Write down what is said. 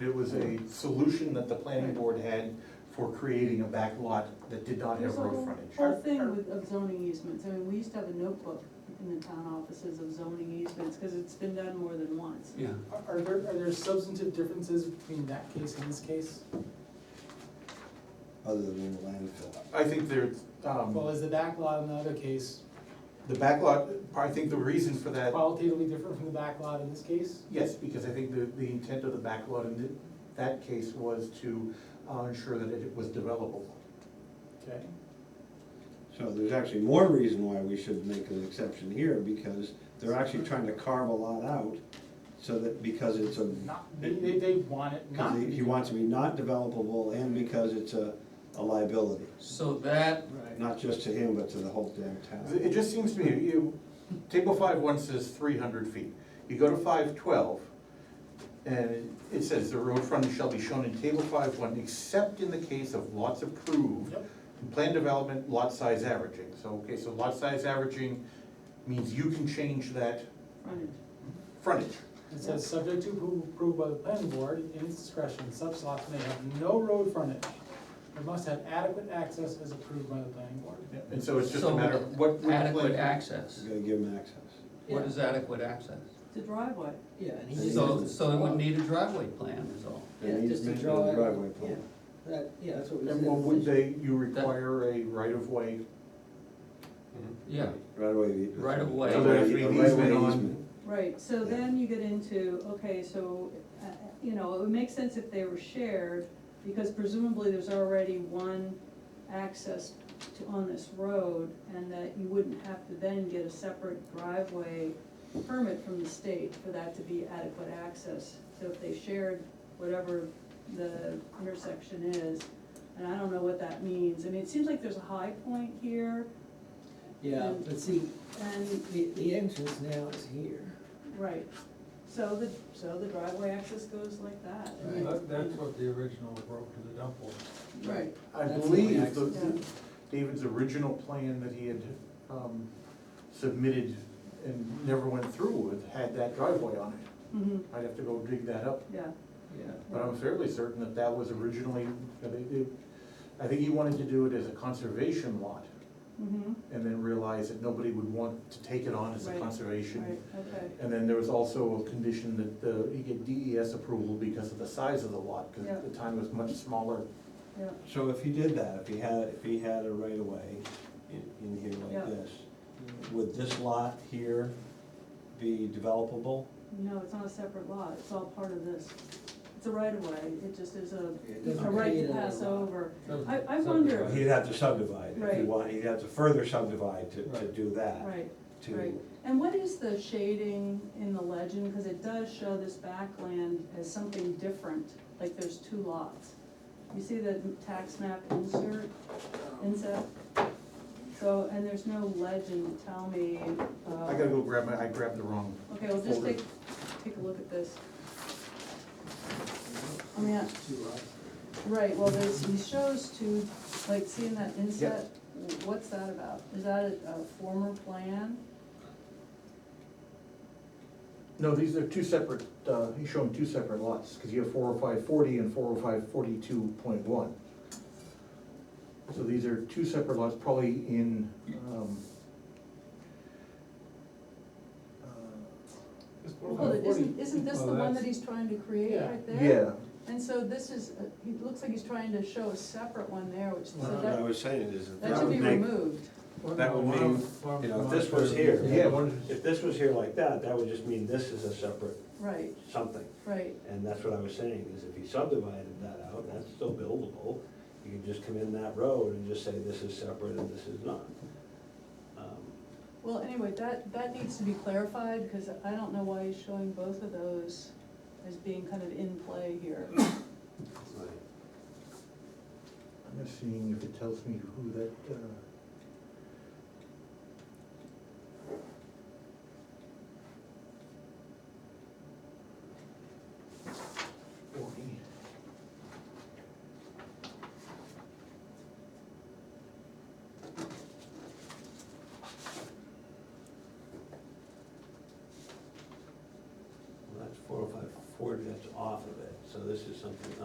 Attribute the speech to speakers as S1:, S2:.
S1: It was a solution that the planning board had for creating a back lot that did not have
S2: There's a
S1: road
S2: whole-
S1: frontage.
S2: Whole thing with, of zoning easements, I mean, we used to have a notebook in the town offices of zoning easements, cause it's been done more than once.
S3: Yeah,
S4: Are- Are there, are there substantive differences between that case and this case?
S5: other than the landfill.
S1: I think there's,
S4: Well,
S1: um,
S4: is the back lot in the other case
S1: the back lot, I think the reason for that,
S4: qualitatively different from the back lot in this case?
S1: yes, because I think the, the intent of the back lot in th- that case was to uh, ensure that it was developable.
S4: Okay,
S5: So there's actually more reason why we should make an exception here, because they're actually trying to carve a lot out, so that, because it's a,
S4: not, they, they- they want it
S5: because
S4: not to
S5: he
S4: be.
S5: he wants to be not developable, and because it's a, a liability,
S3: so that,
S4: Right,
S5: not just to him, but to the whole damn town.
S1: It just seems to me, you, table five one says three hundred feet, you go to five twelve, and it says the road frontage shall be shown in table five one, except in the case of lots approved.
S4: Yep.
S1: Plan development, lot size averaging, so, okay, so lot size averaging means you can change that
S2: Frontage.
S1: frontage.
S4: it says, subject to appro- approval by the planning board in its discretion, such lots may have no road frontage. They must have adequate access as approved by the planning board.
S1: And so it's just a
S3: So
S1: matter of what. what
S3: adequate
S1: plan-
S3: access,
S5: You gotta give him access.
S3: what is adequate access?
S2: It's a driveway.
S6: Yeah, and he just.
S3: So, so it would need a driveway plan is all.
S6: Yeah,
S5: And he's
S6: just to
S5: making a
S6: draw it,
S5: Driveway plan.
S6: That, yeah, that's what we said.
S1: And what would they, you require a right of way,
S3: Yeah,
S5: Right away.
S3: Right of way.
S1: So there's an easement on-
S2: Right, so then you get into, okay, so, uh, you know, it would make sense if they were shared, because presumably there's already one access to, on this road, and that you wouldn't have to then get a separate driveway permit from the state for that to be adequate access. So if they shared whatever the intersection is, and I don't know what that means, I mean, it seems like there's a high point here,
S6: Yeah, but see,
S2: and
S6: the, the entrance now is here.
S2: Right, so the, so the driveway access goes like that. I mean,
S7: That, that's what the original road to the dump was.
S2: Right,
S1: I
S6: That's the
S1: believe the,
S6: access.
S2: Yeah.
S1: David's original plan that he had um, submitted and never went through with had that driveway on it.
S2: hmm
S1: I'd have to go dig that up,
S2: yeah,
S6: Yeah.
S1: but I'm fairly certain that that was originally, that it- it- I think he wanted to do it as a conservation lot
S2: hmm
S1: and then realized that nobody would want to take it on as a
S2: Right,
S1: conservation.
S2: right, okay,
S1: And then there was also a condition that the, he get DES approval because of the size of the lot, because
S2: Yeah.
S1: at the time it was much smaller.
S2: yeah,
S5: So if he did that, if he had, if he had a right of way in, in here
S2: Yeah.
S5: like this, would this lot here be developable?
S2: no, it's not a separate lot, it's all part of this. It's a right of way, it just is a,
S6: It
S2: it's
S6: doesn't
S2: a right
S6: create
S2: to
S6: another
S2: pass
S6: lot.
S2: over.
S7: Doesn't-
S2: I, I
S7: doesn't
S2: wonder,
S7: divide.
S5: He'd have to subdivide, if he
S2: Right.
S5: wanted, he'd have to further subdivide to, to
S7: Right.
S5: do that.
S2: right,
S5: to-
S2: right, and what is the shading in the legend, cause it does show this backland as something different, like there's two lots. You see the tax map insert? Inset. So, and there's no legend to tell me, uh.
S1: I gotta go grab my, I grabbed the wrong
S2: Okay, well, just
S1: folder.
S2: take, take a look at this. I mean, I-
S6: Two lots.
S2: right, well, there's, he shows two, like, seeing that inset, wh- what's that about? Is that a, a former plan?
S1: No, these are two separate, uh, he's showing two separate lots, because you have four oh five forty and four oh five forty-two point one. So these are two separate lots, probably in, um. uh,
S4: It's four
S2: Well,
S4: by forty.
S2: isn't, isn't this the
S7: Well,
S2: one that
S7: that's-
S2: he's trying to create
S4: Yeah.
S2: right there?
S1: Yeah,
S2: And so this is, uh, he looks like he's trying to show a separate one there, which,
S5: What
S2: so
S5: I
S2: that,
S5: was saying is, that
S2: that should
S5: would
S2: be
S5: make,
S2: removed.
S5: that would
S7: One
S5: mean,
S7: of- one
S5: you know,
S7: of
S5: if this
S7: mine
S5: was
S7: is-
S5: here,
S1: yeah.
S7: one is-
S5: if this was here like that, that would just mean this is a separate
S2: Right,
S5: something.
S2: right,
S5: And that's what I was saying, is if you subdivided that out, that's still buildable. You could just come in that road and just say this is separate and this is not. Um,
S2: well, anyway, that, that needs to be clarified, because I don't know why he's showing both of those as being kind of in play here.
S5: right.
S1: I'm just seeing if it tells me who that, uh. Forty.
S5: Well, that's four oh five forty, that's off of it, so this is something